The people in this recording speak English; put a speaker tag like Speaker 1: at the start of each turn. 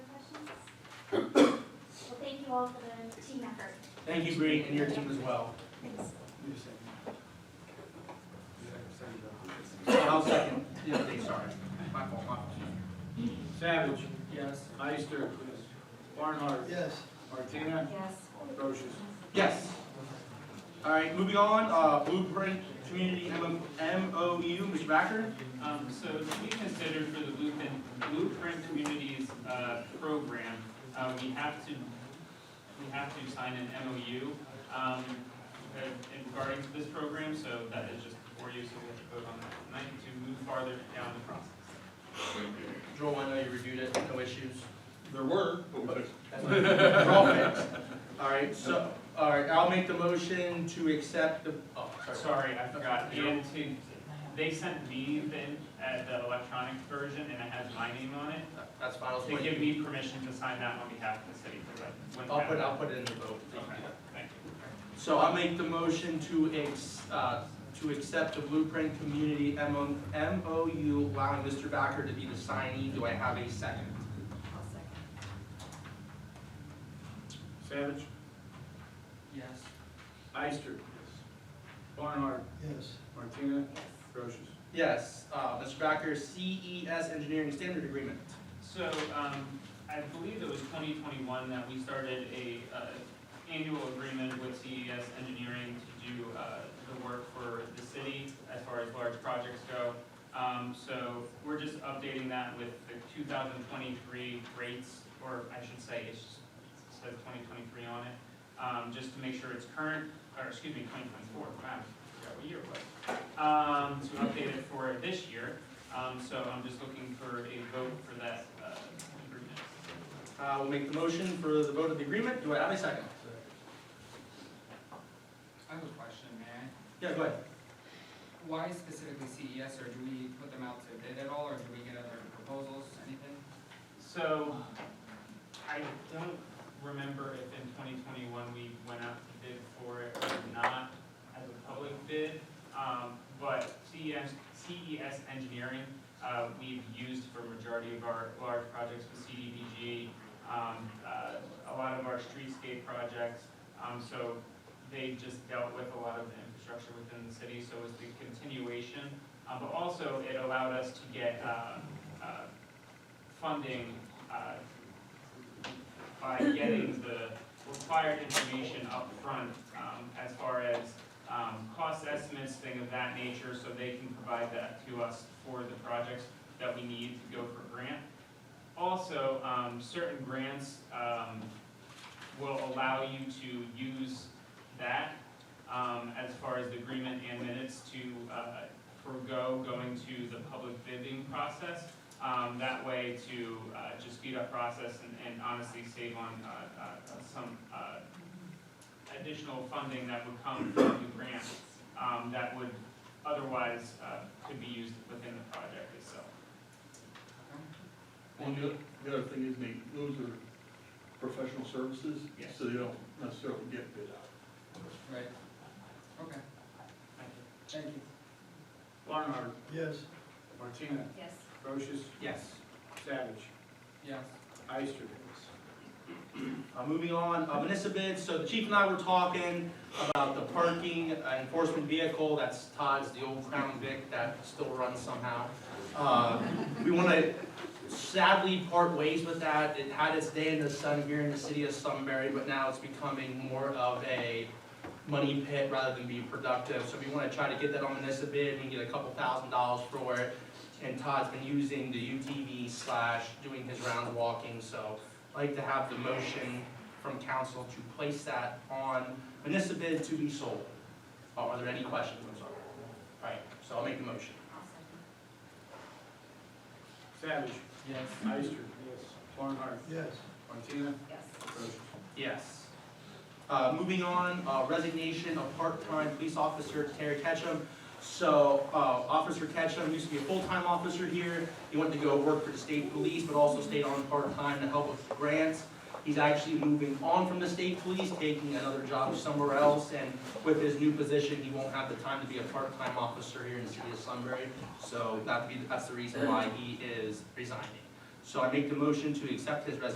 Speaker 1: Paul for the team effort.
Speaker 2: Thank you, Bree, and your team as well. I'll second. Yeah, sorry. My fault, my fault.
Speaker 3: Savage,
Speaker 2: Yes.
Speaker 3: Ister, Barnhart,
Speaker 4: Yes.
Speaker 3: Martina,
Speaker 5: Yes.
Speaker 3: Procius.
Speaker 2: Yes. All right, moving on, uh, Blueprint Community M- MOU, Mr. Backer?
Speaker 6: Um, so to be considered for the Blueprint, Blueprint Communities, uh, program, uh, we have to, we have to sign an MOU, um, uh, in regarding to this program, so that is just before you, so we have to vote on that tonight to move farther down the process.
Speaker 7: Joel, I know you reviewed it, no issues.
Speaker 2: There were.
Speaker 7: We're all fixed.
Speaker 2: All right, so, all right, I'll make the motion to accept the, oh, sorry.
Speaker 6: Sorry, I forgot, and to, they sent me the, uh, the electronic version, and it has my name on it,
Speaker 7: That's fine, I'll
Speaker 6: to
Speaker 7: wait.
Speaker 6: give me permission to sign that on behalf of the city, because I went.
Speaker 7: I'll put, I'll put it in the vote.
Speaker 6: Okay, thank you.
Speaker 2: So I'll make the motion to ex, uh, to accept the Blueprint Community MO MOU, allowing Mr. Backer to be the signee. Do I have a second?
Speaker 5: I'll second.
Speaker 3: Savage,
Speaker 2: Yes.
Speaker 3: Ister, Barnhart,
Speaker 4: Yes.
Speaker 3: Martina,
Speaker 5: Yes.
Speaker 3: Procius.
Speaker 2: Yes, uh, Mr. Backer, CES E Engineering Standard Agreement.
Speaker 6: So, um, I believe it was twenty twenty-one that we started a, uh, annual agreement with CES Engineering to do, uh, the work for the city as far as large projects go. Um, so we're just updating that with the two thousand twenty-three rates, or I should say, it's, it says twenty twenty-three on it. Um, just to make sure it's current, or excuse me, twenty twenty-four, wow, I forgot what year it was. Um, to update it for this year. Um, so I'm just looking for a vote for that, uh, agreement.
Speaker 2: Uh, we'll make the motion for the vote of the agreement. Do I have a second?
Speaker 8: I have a question, man.
Speaker 2: Yeah, go ahead.
Speaker 8: Why specifically CES, or do we put them out to bid at all, or do we get other proposals, anything?
Speaker 6: So, I don't remember if in twenty twenty-one we went out to bid for it or not as a public bid. Um, but CES, CES E Engineering, uh, we've used for majority of our large projects with CDBG, um, uh, a lot of our streetscape projects. Um, so they just dealt with a lot of the infrastructure within the city, so it's the continuation. Uh, but also it allowed us to get, uh, uh, funding uh, by getting the required information up front um, as far as um, cost estimates, thing of that nature, so they can provide that to us for the projects that we need to go for grant. Also, um, certain grants um, will allow you to use that um, as far as the agreement and minutes to uh, forego going to the public bidding process um, that way to, uh, just speed up process and, and honestly save on, uh, uh, some, uh, additional funding that would come from the grant, um, that would otherwise, uh, could be used within the project itself.
Speaker 9: And the the other thing is they, those are professional services,
Speaker 6: Yes.
Speaker 9: so they don't necessarily get bid out.
Speaker 8: Right. Okay,
Speaker 6: Thank you.
Speaker 8: thank you.
Speaker 3: Barnhart,
Speaker 4: Yes.
Speaker 3: Martina,
Speaker 5: Yes.
Speaker 3: Procius,
Speaker 2: Yes.
Speaker 3: Savage,
Speaker 8: Yes.
Speaker 3: Ister.
Speaker 2: Uh, moving on, uh, municipal bids, so the chief and I were talking about the parking uh, enforcement vehicle, that's Todd's, the old Crown Vic that still runs somehow. Uh, we wanna sadly part ways with that, it had its day in the sun here in the city of Sunbury, but now it's becoming more of a money pit rather than be productive, so we wanna try to get that on municipal bid and get a couple thousand dollars for it. And Todd's been using the UTV slash doing his round walking, so I'd like to have the motion from council to place that on municipal bid to be sold. Oh, Are there any questions, I'm sorry? All right, so I'll make the motion.
Speaker 5: I'll second.
Speaker 3: Savage,
Speaker 8: Yes.
Speaker 3: Ister. Yes. Barnhart,
Speaker 4: Yes.
Speaker 3: Martina,
Speaker 5: Yes.
Speaker 3: Procius.
Speaker 2: Yes. Uh, moving on, uh, resignation of part-time police officer Terry Ketchum. So, uh, Officer Ketchum used to be a full-time officer here. He went to go work for the state police, but also stayed on part-time to help with grants. He's actually moving on from the state police, taking another job somewhere else, and with his new position, he won't have the time to be a part-time officer here in the city of Sunbury. So that'd be, that's the reason why he is resigning. So I make the motion to accept his resignation